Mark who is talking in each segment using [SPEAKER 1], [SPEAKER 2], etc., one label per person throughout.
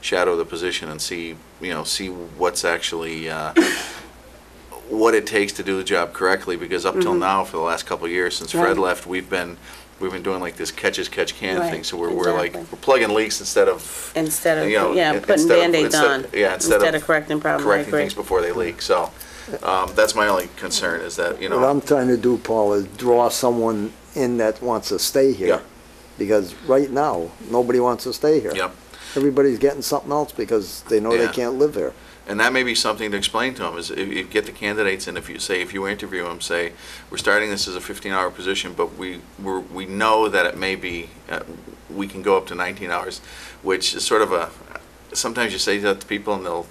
[SPEAKER 1] shadow the position and see, you know, see what's actually, uh, what it takes to do the job correctly, because up till now, for the last couple of years, since Fred
[SPEAKER 2] Mm-hmm. Right.
[SPEAKER 1] left, we've been, we've been doing like this catch as catch can
[SPEAKER 2] Right,
[SPEAKER 1] thing, so we're, we're like,
[SPEAKER 2] exactly.
[SPEAKER 1] we're plugging leaks instead of.
[SPEAKER 2] Instead of,
[SPEAKER 1] you know,
[SPEAKER 2] yeah,
[SPEAKER 1] in-
[SPEAKER 2] putting
[SPEAKER 1] instead of-
[SPEAKER 2] Band-Aids
[SPEAKER 1] instead-
[SPEAKER 2] on.
[SPEAKER 1] Yeah, instead of.
[SPEAKER 2] correcting problems, I
[SPEAKER 1] Correcting
[SPEAKER 2] agree.
[SPEAKER 1] things before they leak, so, um, that's my only concern, is that, you know.
[SPEAKER 3] What I'm trying to do, Paul, is draw someone in that wants to stay here.
[SPEAKER 1] Yeah.
[SPEAKER 3] Because right now, nobody wants to stay here.
[SPEAKER 1] Yep.
[SPEAKER 3] Everybody's getting something else because they know
[SPEAKER 1] Yeah.
[SPEAKER 3] they can't live there.
[SPEAKER 1] And that may be something to explain to them is if you get the candidates and if you say, if you interview them, say, we're starting this as a 15-hour position, but we, we're, we know that it may be, uh, we can go up to 19 hours, which is sort of a, sometimes you say that to people and they'll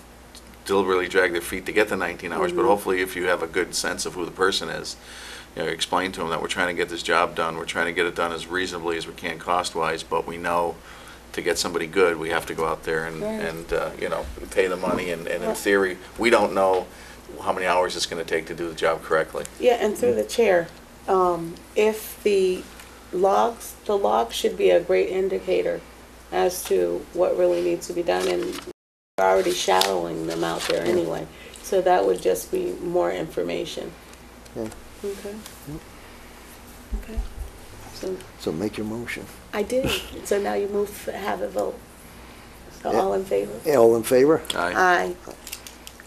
[SPEAKER 1] deliberately drag their feet to get the 19 hours,
[SPEAKER 2] Mm-hmm.
[SPEAKER 1] but hopefully if you have a good sense of who the person is, you know, explain to them that we're trying to get this job done, we're trying to get it done as reasonably as we can cost-wise, but we know to get somebody good, we have to go out there and, and, uh, you know, pay the money, and, and in theory, we don't know how many hours it's gonna take to do the job correctly.
[SPEAKER 2] Yeah, and through the chair, um, if the logs, the log should be a great indicator as to what really needs to be done, and we're already shadowing them out there anyway. So that would just be more information.
[SPEAKER 3] Yeah.
[SPEAKER 2] Okay. Okay. So,
[SPEAKER 3] So make your motion.
[SPEAKER 2] I did, so now you move, have a vote. So
[SPEAKER 3] Yeah.
[SPEAKER 2] all in favor?
[SPEAKER 3] All in favor?
[SPEAKER 1] Aye,
[SPEAKER 2] Aye.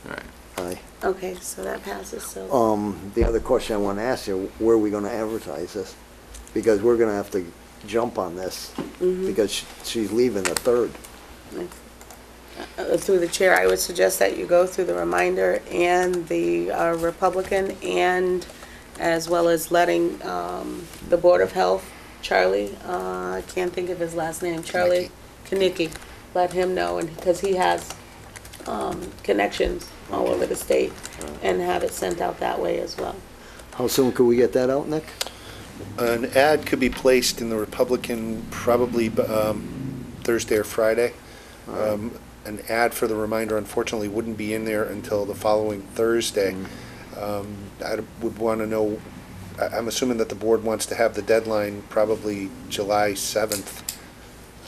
[SPEAKER 1] all right.
[SPEAKER 3] Aye.
[SPEAKER 2] Okay, so that passes, so.
[SPEAKER 3] Um, the other question I want to ask you, where are we going to advertise this? Because we're going to have to jump on this because she- she's leaving the third.
[SPEAKER 2] Uh, Through the chair, I would suggest that you go through the reminder and the uh, Republican and as well as letting um, the Board of Health, Charlie, uh, I can't think of his last name, Charlie Kinnicky, let him know, and, because he has um, connections all over the state, and have it sent out that way as well.
[SPEAKER 3] How soon could we get that out, Nick?
[SPEAKER 4] An ad could be placed in the Republican probably um, Thursday or Friday. Um, An ad for the reminder unfortunately wouldn't be in there until the following Thursday. Um, I would want to know, I- I'm assuming that the board wants to have the deadline probably July 7th.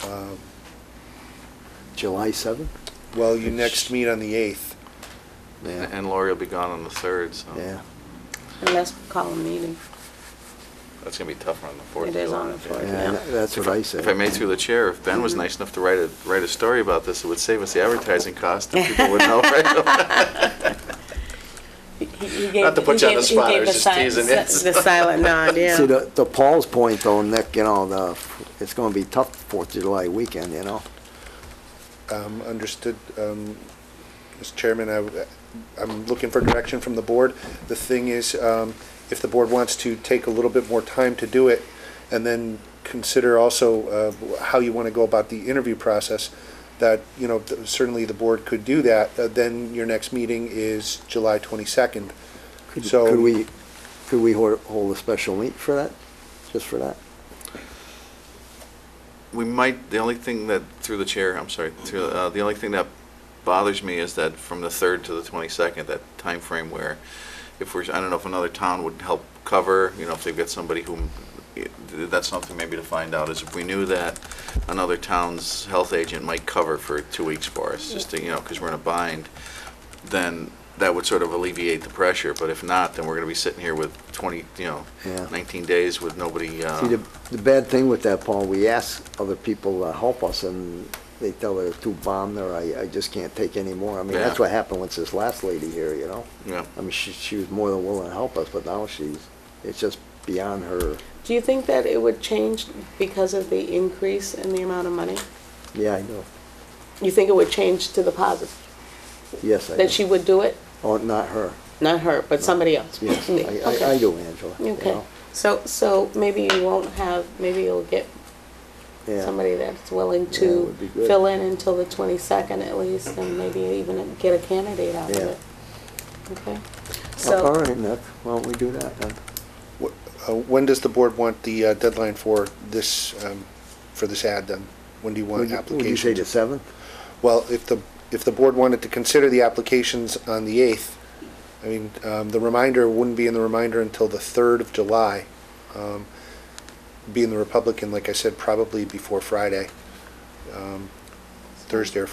[SPEAKER 4] Um,
[SPEAKER 3] July 7th?
[SPEAKER 4] Well, you next meet on the 8th.
[SPEAKER 1] And and Lori will be gone on the third, so
[SPEAKER 3] Yeah.
[SPEAKER 2] And let's call a meeting.
[SPEAKER 1] that's gonna be tough on the fourth.
[SPEAKER 2] It is on the 4th, yeah.
[SPEAKER 3] Yeah, tha- that's what I said.
[SPEAKER 1] If I made through the chair, if Ben was nice enough to write a, write a story about this, it would save us the advertising cost and people would know right Not to put you on the spot, I was just teasing you.
[SPEAKER 2] The silent nod, yeah.
[SPEAKER 3] See, the, the Paul's point though, Nick, you know, the, it's gonna be tough Fourth of July weekend, you know?
[SPEAKER 4] Um, Understood, um, Mr. Chairman, I w- I'm looking for direction from the board. The thing is, um, if the board wants to take a little bit more time to do it, and then consider also uh, how you want to go about the interview process, that, you know, th- certainly the board could do that, Uh, then your next meeting is July 22nd. So-
[SPEAKER 3] Could we, could we hold, hold a special meet for that, just for that?
[SPEAKER 1] we might, the only thing that, through the chair, I'm sorry, through, uh, the only thing that bothers me is that from the third to the twenty-second, that time frame where if we're, I don't know if another town would help cover, you know, if they've got somebody whom, eh, that's something maybe to find out, is if we knew that another town's health agent might cover for two weeks for us, just to, you know, because we're in a bind, then that would sort of alleviate the pressure, but if not, then we're gonna be sitting here with twenty, you know,
[SPEAKER 3] Yeah.
[SPEAKER 1] nineteen days with nobody, uh.
[SPEAKER 3] See, the, the bad thing with that, Paul, we ask other people to help us and they tell us too bombed or I, I just can't take any more. I mean, that's
[SPEAKER 1] Yeah.
[SPEAKER 3] what happened with this last lady here, you know?
[SPEAKER 1] Yeah.
[SPEAKER 3] I mean, she, she was more than willing to help us, but now she's, it's just beyond her,
[SPEAKER 2] Do you think that it would change because of the increase in the amount of money?
[SPEAKER 3] yeah, I know.
[SPEAKER 2] You think it would change to the positive,
[SPEAKER 3] Yes, I do.
[SPEAKER 2] that she would do it?
[SPEAKER 3] Oh, not her,
[SPEAKER 2] Not her, but somebody else?
[SPEAKER 3] yes,
[SPEAKER 2] Me.
[SPEAKER 3] I- I, I
[SPEAKER 2] Okay.
[SPEAKER 3] do, Angela, you
[SPEAKER 2] Okay,
[SPEAKER 3] know?
[SPEAKER 2] so, so maybe you won't have, maybe you'll get
[SPEAKER 3] Yeah.
[SPEAKER 2] somebody that's willing
[SPEAKER 3] Yeah,
[SPEAKER 2] to
[SPEAKER 3] would be good.
[SPEAKER 2] fill in until the 22nd at least, and maybe even get a candidate out of
[SPEAKER 3] Yeah.
[SPEAKER 2] it. Okay?
[SPEAKER 3] Oh, All
[SPEAKER 2] So,
[SPEAKER 3] right, Nick, why don't we do that then?
[SPEAKER 4] Wh- uh, When does the board want the uh, deadline for this, um, for this ad then? When do you
[SPEAKER 3] Would you- Would
[SPEAKER 4] want
[SPEAKER 3] you
[SPEAKER 4] applications?
[SPEAKER 3] say the seventh?
[SPEAKER 4] Well, if the, if the board wanted to consider the applications on the 8th, I mean, um, the reminder wouldn't be in the reminder until the 3rd of July. Um, Being the Republican, like I said, probably before Friday. Um, Thursday or